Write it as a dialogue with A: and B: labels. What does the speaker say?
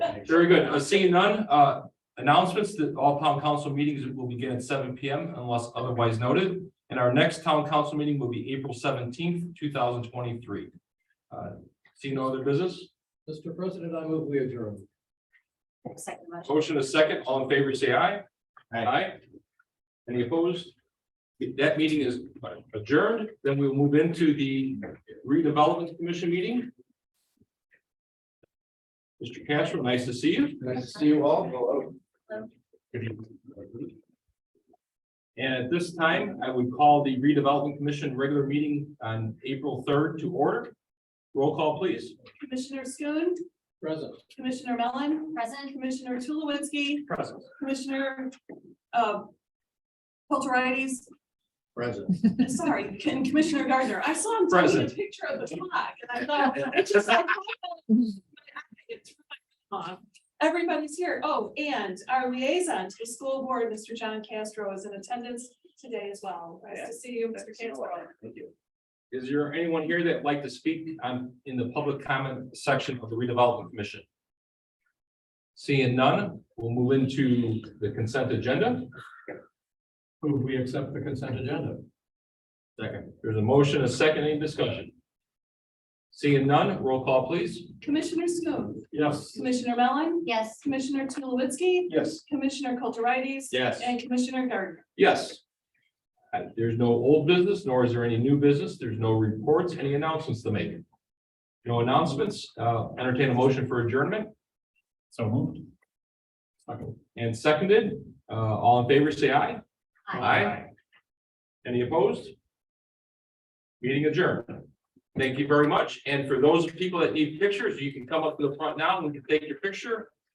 A: Very good. Uh, Seeing none, uh, announcements that all town council meetings will begin at seven P M unless otherwise noted. And our next town council meeting will be April seventeenth, two thousand twenty-three. Uh, Seeing no other business,
B: Mr. President, I move we adjourn.
C: Second motion.
A: motion is second, all in favor, say aye. Aye. Any opposed? That meeting is adjourned, then we'll move into the redevelopment commission meeting. Mr. Castro, nice to see you.
B: Nice to see you all. Hello.
A: And at this time, I would call the redevelopment commission regular meeting on April third to order. Roll call, please.
D: Commissioner Schoen,
B: Present.
D: Commissioner Mellon,
C: Present,
D: Commissioner Tulowitzki,
A: Present.
D: Commissioner uh, Kulturitis,
B: Present.
D: sorry, and Commissioner Gardner. I saw him taking a
A: Present.
D: picture of the flag and I thought. I just- I thought- Everybody's here. Oh, and our liaison to the school board, Mr. John Castro is in attendance today as well. Nice to see you, Mr. Castro.
A: Thank you. Is there anyone here that'd like to speak on, in the public comment section of the redevelopment commission? Seeing none, we'll move into the consent agenda.
B: Move we accept the consent agenda.
A: Second, there's a motion, a second, any discussion? Seeing none, roll call, please.
D: Commissioner Schoen,
A: Yes.
D: Commissioner Mellon,
C: yes.
D: Commissioner Tulowitzki,
B: Yes.
D: Commissioner Kulturitis.
A: Yes.
D: And Commissioner Gardner.
A: Yes. Uh, There's no old business, nor is there any new business. There's no reports, any announcements to make. No announcements, uh, entertain a motion for adjournment. So moved. And seconded, uh, all in favor, say aye.
C: Aye.
A: Any opposed? Meeting adjourned. Thank you very much. And for those people that need pictures, you can come up to the front now and we can take your picture.